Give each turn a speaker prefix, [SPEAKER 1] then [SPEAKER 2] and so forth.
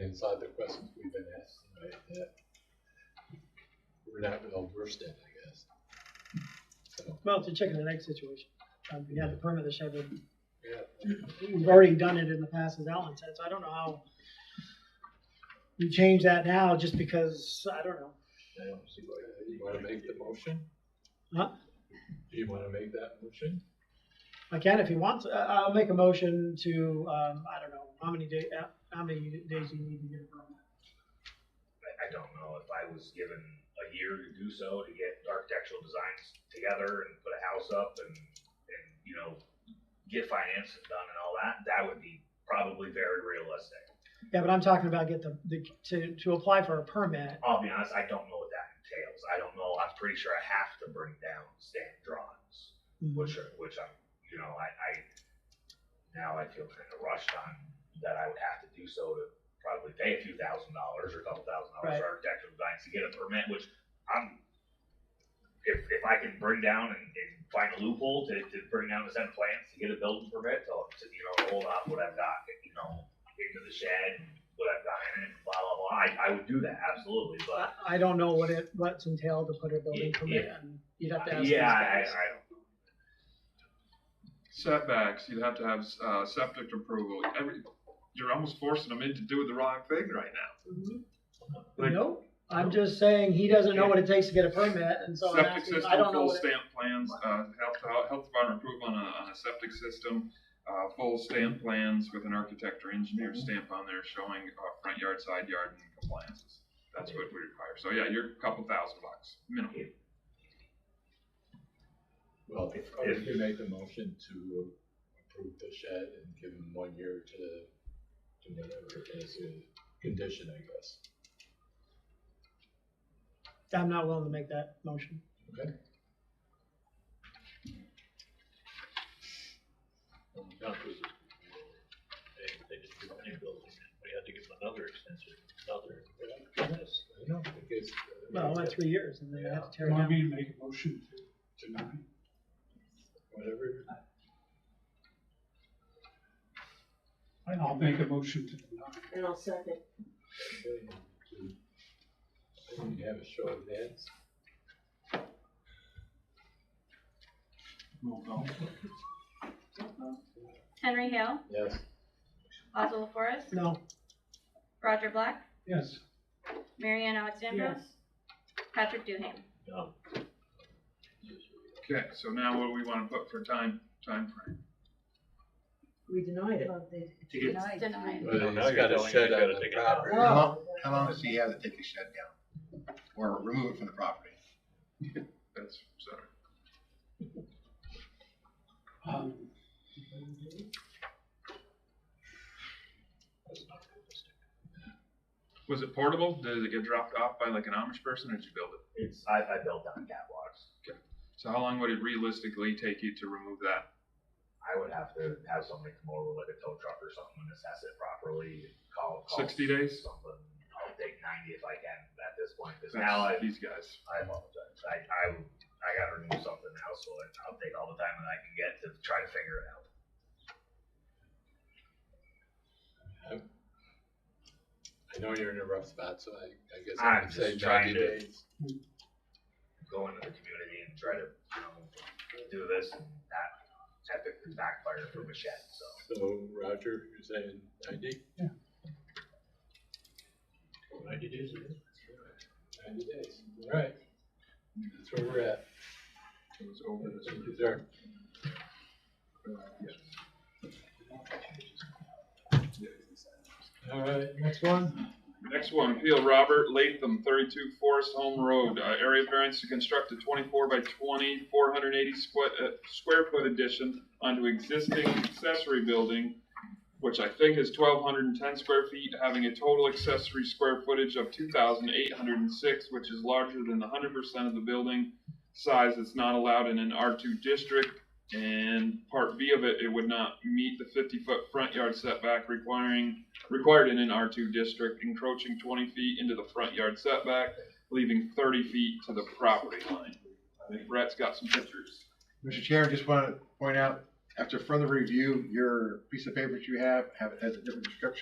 [SPEAKER 1] inside the questions we've been asked tonight that we're not well versed in, I guess. So,
[SPEAKER 2] Well, it's a chicken and egg situation. Um, we had the permit the shed, and
[SPEAKER 1] yeah,
[SPEAKER 2] we've already done it in the past, as Alan said, so I don't know how we change that now just because, I don't know.
[SPEAKER 1] I don't see why- you wanna make the motion?
[SPEAKER 2] Huh?
[SPEAKER 1] Do you wanna make that motion?
[SPEAKER 2] I can if he wants, uh, I'll make a motion to, um, I don't know, how many day, uh, how many days you need to get a permit.
[SPEAKER 3] I, I don't know if I was given a year to do so to get architectural designs together and put a house up and, and, you know, get financing done and all that, that would be probably very realistic.
[SPEAKER 2] Yeah, but I'm talking about get the, the, to, to apply for a permit.
[SPEAKER 3] I'll be honest, I don't know what that entails. I don't know, I'm pretty sure I have to bring down stamp drawings, which are, which I'm, you know, I, I, now I feel kind of rushed on that I would have to do so to probably pay a few thousand dollars or a couple thousand
[SPEAKER 2] Right.
[SPEAKER 3] dollars for architectural designs to get a permit, which I'm, if, if I can bring down and, and find a loophole to, to bring down the set of plans to get a building permit, to, to, you know, hold up what I've got, you know, into the shed, what I've got in it, blah, blah, blah, I, I would do that, absolutely, but
[SPEAKER 2] I, I don't know what it, what's entailed to put a building
[SPEAKER 3] Yeah,
[SPEAKER 2] permit
[SPEAKER 3] yeah.
[SPEAKER 2] in. You'd have to ask these
[SPEAKER 3] Yeah, I, I,
[SPEAKER 2] guys.
[SPEAKER 3] I don't.
[SPEAKER 4] setbacks, you'd have to have, uh, septic approval, every, you're almost forcing them into doing the wrong thing right now.
[SPEAKER 2] Mhm.
[SPEAKER 4] Like-
[SPEAKER 2] Nope, I'm just saying he doesn't know what it takes to get a permit, and so I'm
[SPEAKER 4] Septic
[SPEAKER 2] asking, I don't know
[SPEAKER 4] system, full
[SPEAKER 2] what it.
[SPEAKER 4] stamp plans, uh, health, health department approval on a, on a septic system, uh, full stamp plans with an architect or engineer
[SPEAKER 2] Mm-hmm.
[SPEAKER 4] stamp on there showing, uh, front yard, side yard and compliances. That's what we require, so yeah, you're a couple thousand bucks, minimum.
[SPEAKER 1] Well, if you make the motion to approve the shed and give them one year to, to whatever it is, a condition, I guess.
[SPEAKER 2] I'm not willing to make that motion.
[SPEAKER 1] Okay.
[SPEAKER 5] Well, the doctors, they, they just do any building, we had to give them another extension, another, yes.
[SPEAKER 1] I don't know, I guess, uh,
[SPEAKER 2] Well, that's three years, and then I have to tear it
[SPEAKER 6] Want
[SPEAKER 2] down.
[SPEAKER 6] me to make a motion to deny?
[SPEAKER 1] Whatever.
[SPEAKER 6] I'll make a motion to deny.
[SPEAKER 7] And I'll second.
[SPEAKER 1] I think you have a show of hands.
[SPEAKER 6] Roll call.
[SPEAKER 8] Henry Hale,
[SPEAKER 1] Yes.
[SPEAKER 8] Oswald Forrest,
[SPEAKER 2] No,
[SPEAKER 8] Roger Black,
[SPEAKER 6] Yes,
[SPEAKER 8] Marianne Alexandros, Patrick Duhane.
[SPEAKER 5] No,
[SPEAKER 4] Okay, so now what do we wanna put for time, timeframe?
[SPEAKER 7] We denied it.
[SPEAKER 5] to get,
[SPEAKER 8] It's denied.
[SPEAKER 5] Well, now you're telling me I gotta take it down.
[SPEAKER 9] How long, how long does he have to take the shed down? Or remove it from the property?
[SPEAKER 4] That's, sorry.
[SPEAKER 6] um,
[SPEAKER 5] that's not realistic.
[SPEAKER 4] Was it portable? Did it get dropped off by like an Amish person or did you build it?
[SPEAKER 3] It's, I, I built down catwalks.
[SPEAKER 4] So how long would it realistically take you to remove that?
[SPEAKER 3] I would have to have somebody come over with a tow truck or something and assess it properly, call, call.
[SPEAKER 4] 60 days?
[SPEAKER 3] Something, I'll take ninety if I can at this point, cause
[SPEAKER 4] That's
[SPEAKER 3] now I,
[SPEAKER 4] these guys.
[SPEAKER 3] I apologize, I, I, I gotta remove something now, so I'll take all the time that I can get to try to figure it out.
[SPEAKER 1] I know you're in a rough spot, so I, I guess
[SPEAKER 3] I'm
[SPEAKER 1] I would say
[SPEAKER 3] just
[SPEAKER 1] ninety
[SPEAKER 3] trying to-
[SPEAKER 1] days.
[SPEAKER 3] Go into the community and try to, you know, do this and that, that could backfire for Machette, so.
[SPEAKER 1] So Roger, you're saying ninety?
[SPEAKER 5] Ninety days, it is.
[SPEAKER 1] Ninety days. All right. That's where we're at.
[SPEAKER 4] It was over this
[SPEAKER 1] Thank
[SPEAKER 4] week.
[SPEAKER 1] you, sir. All right, next one?
[SPEAKER 4] Next one, appeal Robert Latham, thirty-two Forest Home Road, uh, area variance to construct a twenty-four by 20, 480 squ- uh, square foot addition onto existing accessory building, which I think is twelve hundred and ten square feet, having a total accessory square footage of two thousand eight hundred and six, which is larger than the hundred percent of the building size that's not allowed in an R two district. And part B of it, it would not meet the fifty-foot front yard setback requiring required in an R2 district, encroaching 20 feet into the front yard setback, leaving 30 feet to the property line. I think Brett's got some pictures.
[SPEAKER 9] Mr. Chair, just want to point out, after further review, your piece of paper that you have, have, has a different description